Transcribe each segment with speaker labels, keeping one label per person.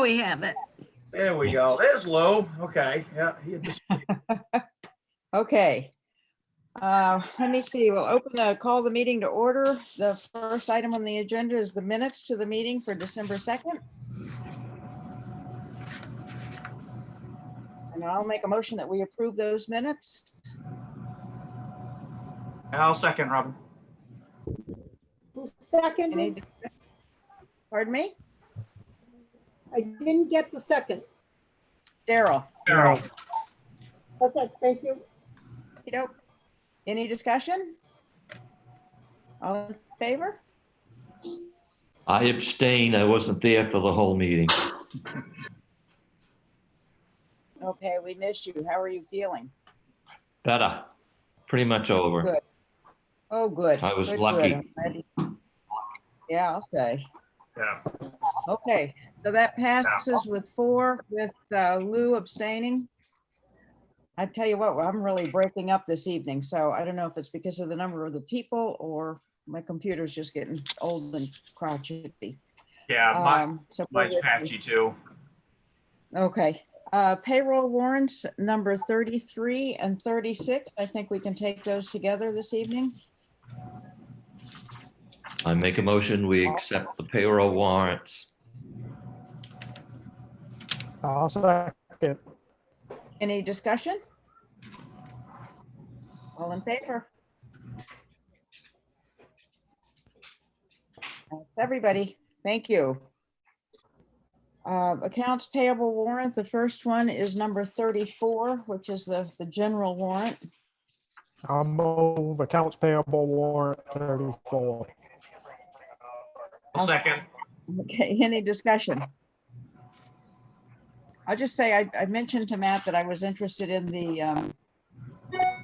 Speaker 1: we have it.
Speaker 2: There we go. There's low. Okay, yeah. he had dis-
Speaker 3: Okay. Uh, Let me see, we'll open the, call the meeting to order. The first item on the agenda is the minutes to the meeting for December 2nd. And I'll make a motion that we approve those minutes.
Speaker 2: I'll second, Robin.
Speaker 4: Who seconded?
Speaker 3: Any- Pardon me?
Speaker 4: I didn't get the second.
Speaker 3: Daryl?
Speaker 2: Carol.
Speaker 4: Okay, thank you.
Speaker 3: You know, any discussion? All in favor?
Speaker 5: I abstain. I wasn't there for the whole meeting.
Speaker 3: Okay, we missed you. How are you feeling?
Speaker 5: Better. Pretty much over.
Speaker 3: Good. Oh, good.
Speaker 5: I was
Speaker 3: Good, good.
Speaker 5: lucky.
Speaker 3: I'm glad you- Yeah, I'll say.
Speaker 2: Yeah.
Speaker 3: Okay, so that passes with four, with uh, Lou abstaining. I tell you what, I'm really breaking up this evening, so I don't know if it's because of the number of the people or my computer's just getting old and crotchety.
Speaker 2: Yeah, Uh, my,
Speaker 3: Um, so
Speaker 2: mine's patchy too.
Speaker 3: Okay, uh, payroll warrants number 33 and 36. I think we can take those together this evening.
Speaker 5: I make a motion, we accept the payroll warrants.
Speaker 6: I'll second.
Speaker 3: Any discussion? All in favor? That's Everybody, thank you. Uh, Accounts payable warrant, the first one is number 34, which is the, the general warrant.
Speaker 6: I'll move accounts payable warrant 34.
Speaker 2: I'll second.
Speaker 3: Okay, any discussion? I'll just say, I, I mentioned to Matt that I was interested in the, um,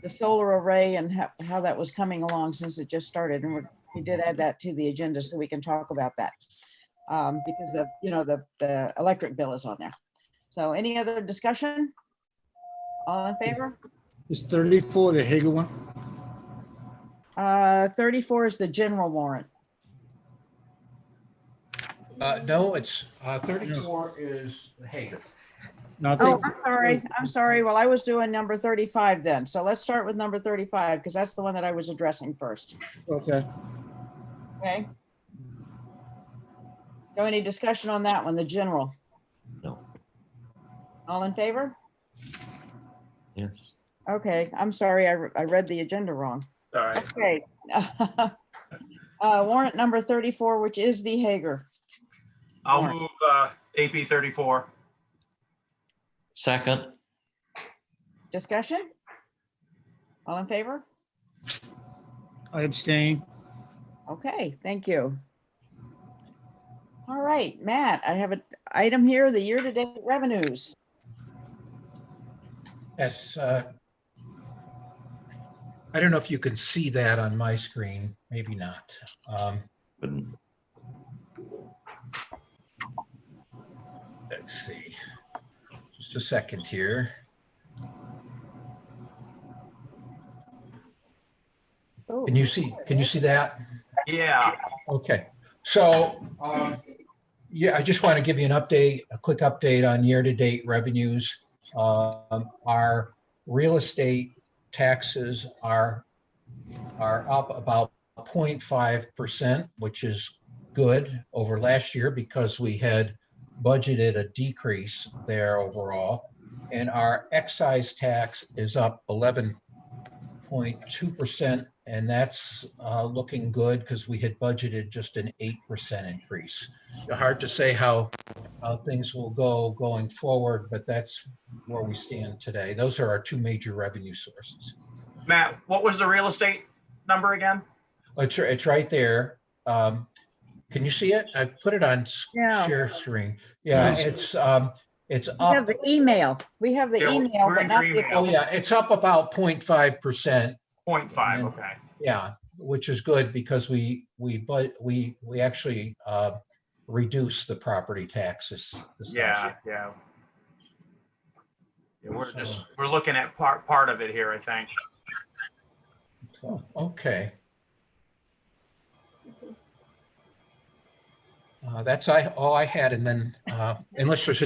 Speaker 3: the solar array and how, how that was coming along since it just started. And we're- we did add that to the agenda so we can talk about that. Um, because the, you know, the, the electric bill is on there. So any other discussion? All in favor?
Speaker 7: Is 34 the Hager one?
Speaker 3: Uh, thirty-four is the general warrant.
Speaker 8: Uh, no, it's, uh, thirty-four is Hager.
Speaker 7: No, I
Speaker 3: Oh,
Speaker 7: think,
Speaker 3: I'm sorry, I'm sorry. Well, I was doing number thirty-five then. So let's start with number thirty-five because that's the one that I was addressing first.
Speaker 7: okay.
Speaker 3: Okay. So any discussion on that one, the general?
Speaker 5: No.
Speaker 3: All in favor?
Speaker 5: Yes.
Speaker 3: Okay, I'm sorry, I, re- I read the agenda wrong.
Speaker 2: Sorry.
Speaker 3: Okay. Uh, warrant number thirty-four, which is the Hager.
Speaker 2: I'll move, uh, AP thirty-four.
Speaker 5: Second,
Speaker 3: Discussion? All in favor?
Speaker 7: I abstain.
Speaker 3: Okay, thank you. All right, Matt, I have an item here, the year-to-date revenues.
Speaker 8: Yes, uh, I don't know if you can see that on my screen, maybe not. Um,
Speaker 5: but
Speaker 8: let's see. Just a second here.
Speaker 3: Oh,
Speaker 8: Can you see, can you see that?
Speaker 2: Yeah,
Speaker 8: Okay, so, um, yeah, I just want to give you an update, a quick update on year-to-date revenues. Um, Our real estate taxes are, are up about 0.5%, which is good over last year because we had budgeted a decrease there overall. And our excise tax is up 11 0.2%, and that's uh, looking good because we had budgeted just an 8% increase. Hard to say how, how things will go going forward, but that's where we stand today. Those are our two major revenue sources.
Speaker 2: Matt, what was the real estate number again?
Speaker 8: It's, it's right there. Um, Can you see it? I put it on s-
Speaker 3: Yeah.
Speaker 8: share screen. Yeah,
Speaker 5: Yes.
Speaker 8: it's, um, it's
Speaker 3: We have
Speaker 8: up,
Speaker 3: the email. We have the
Speaker 2: Uh, Yeah, we're-
Speaker 3: email,
Speaker 2: we're
Speaker 3: but
Speaker 2: in
Speaker 3: not
Speaker 2: agreement.
Speaker 3: the.
Speaker 8: oh yeah, it's up about 0.5%.
Speaker 2: Point five, okay.
Speaker 8: Yeah, which is good because we, we, but we, we actually uh reduce the property taxes. this last
Speaker 2: Yeah,
Speaker 8: year.
Speaker 2: yeah. Yeah, we're just, we're looking at part, part of it here, I think.
Speaker 8: So, Okay. Uh, That's I, all I had. And then uh, unless there's